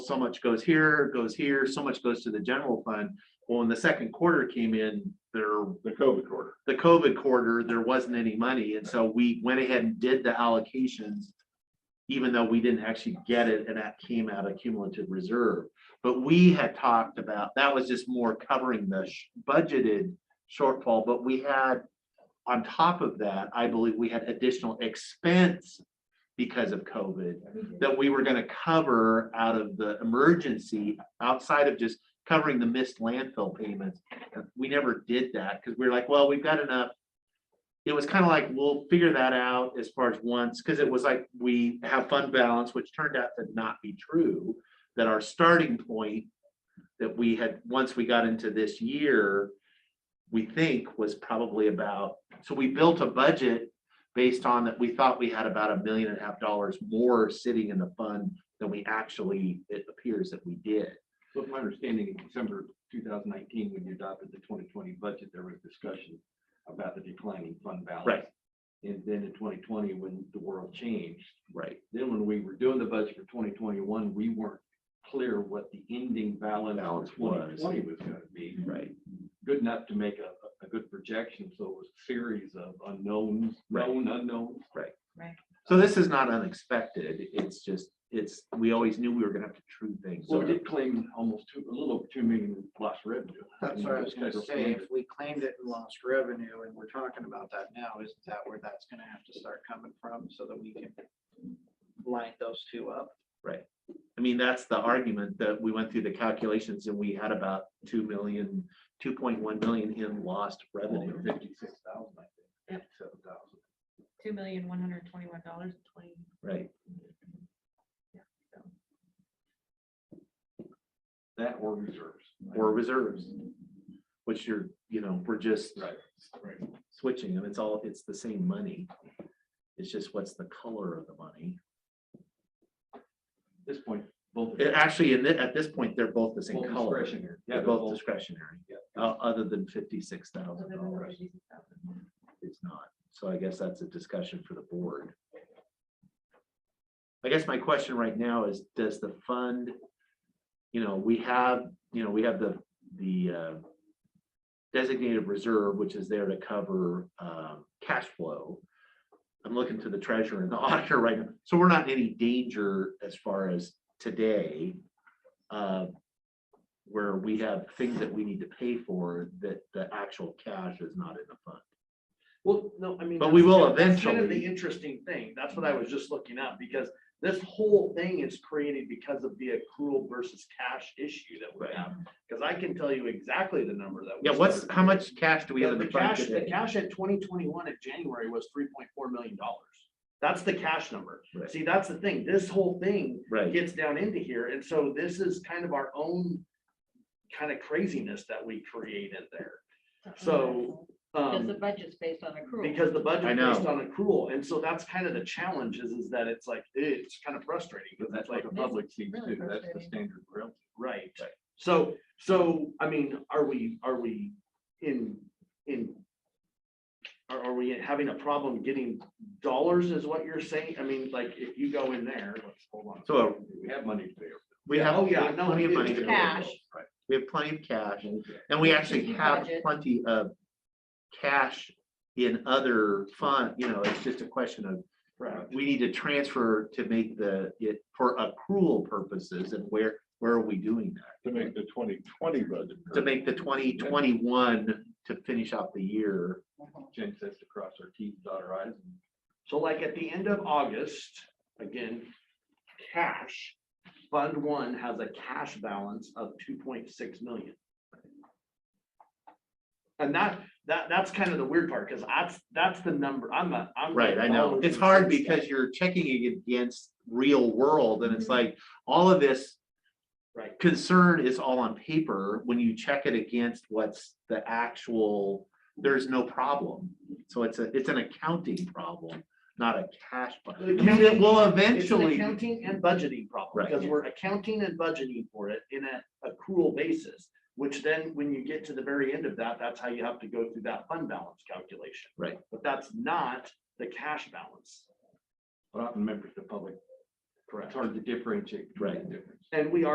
so much goes here, goes here, so much goes to the general fund. Well, when the second quarter came in, there, the COVID quarter. the COVID quarter, there wasn't any money, and so we went ahead and did the allocations. Even though we didn't actually get it, and that came out of cumulative reserve, but we had talked about, that was just more covering the sh- budgeted shortfall, but we had. On top of that, I believe we had additional expense because of COVID that we were gonna cover out of the emergency, outside of just covering the missed landfill payments. We never did that, because we were like, well, we've got enough. It was kind of like, we'll figure that out as far as once, because it was like, we have fund balance, which turned out to not be true. That our starting point that we had, once we got into this year, we think was probably about, so we built a budget based on that, we thought we had about a million and a half dollars more sitting in the fund than we actually, it appears that we did. So my understanding, in December two thousand nineteen, when you adopted the twenty twenty budget, there was discussion about the declining fund balance. Right. And then in twenty twenty, when the world changed, Right. then when we were doing the budget for twenty twenty-one, we weren't clear what the ending balance Balance for twenty was. twenty was gonna be. Right. Good enough to make a, a good projection, so it was a series of unknowns, Right. known unknowns. So this is not unexpected. It's just, it's, we always knew we were gonna have to true things. So we did claim almost two, a little over two million lost revenue. That's what I was gonna say, if we claimed it and lost revenue, and we're talking about that now, isn't that where that's gonna have to start coming from, so that we can line those two up? I mean, that's the argument that we went through the calculations and we had about two million, two point one million in lost revenue. Fifty-six thousand, I think, seven thousand. two million, one hundred twenty-one dollars and twenty. Right. That or reserves. Or reserves, which you're, you know, we're just Right, right. switching them. It's all, it's the same money. It's just what's the color of the money. At this point, both. It actually, in thi- at this point, they're both the same Both color. discretionary. Yeah, They're they're both both, discretionary, yeah. uh, other than fifty-six thousand dollars. Well, It's not. So I guess that's a discussion for the board. I guess my question right now is, does the fund, you know, we have, you know, we have the, the uh, designated reserve, which is there to cover um, cash flow. I'm looking to the treasurer and the auditor right now. So we're not in any danger as far as today. uh, Where we have things that we need to pay for that the actual cash is not in the fund. Well, no, I mean. But we that's- will that's Kind of eventually. the interesting thing. That's what I was just looking at because this whole thing is created because of the accrual versus cash issue that we Right. have. Because I can tell you exactly the number that. Yeah, was what's, there. how much cash do we have The in the the fund cash, the today? cash at twenty twenty-one in January was three point four million dollars. That's the cash number. Right. See, that's the thing. This whole thing Right, gets down into here. And so this is kind of our own kind of craziness that we created there. So, Because Um, the budget's based on accrual. because the I budget based know. on accrual, and so that's kind of the challenge is, is that it's like, it's kind of frustrating, but because that's it's like like, the That's public sees really too. That's the frustrating. standard rail. right? Right. So, so, I mean, are we, are we in, in, are, are we having a problem getting dollars is what you're saying? I mean, like, if you go in there, let's hold on. so uh, We have money to pay. we Yeah, have. oh, yeah, we have no, Plenty of it- money. it's to pay cash. bills. We have plenty of cash, Okay. and we actually Budget. have plenty of cash in other fund, you know, it's just a question of, Right. we need to transfer to make the, it, for accrual purposes, and where, where are we doing that? to make the twenty twenty budget. To make the twenty twenty-one to finish off the year. Mm-hmm. Jen says to cross our teeth, dot our i's. and So like at the end of August, again, cash, Fund One has a cash balance of two point six million. And that, that, that's kind of the weird part, because that's, that's the number, I'm a, I'm. a Right, I know. dollars It's and hard cents guy. because you're checking it against real world and it's like, all of this. Mm-hmm. Right. Concern is all on paper. When you check it against what's the actual, there's no problem. So it's a, it's an accounting problem, not a cash. pro- I mean, it will It's an eventually, accounting and budgeting problem, Right. because we're accounting and budgeting for it in a accrual basis, which then when you get to the very end of that, that's how you have to go through that fund balance calculation. Right. But that's not the cash balance. But often members of the public, it's Correct. hard to differentiate. between the Right. difference. And we are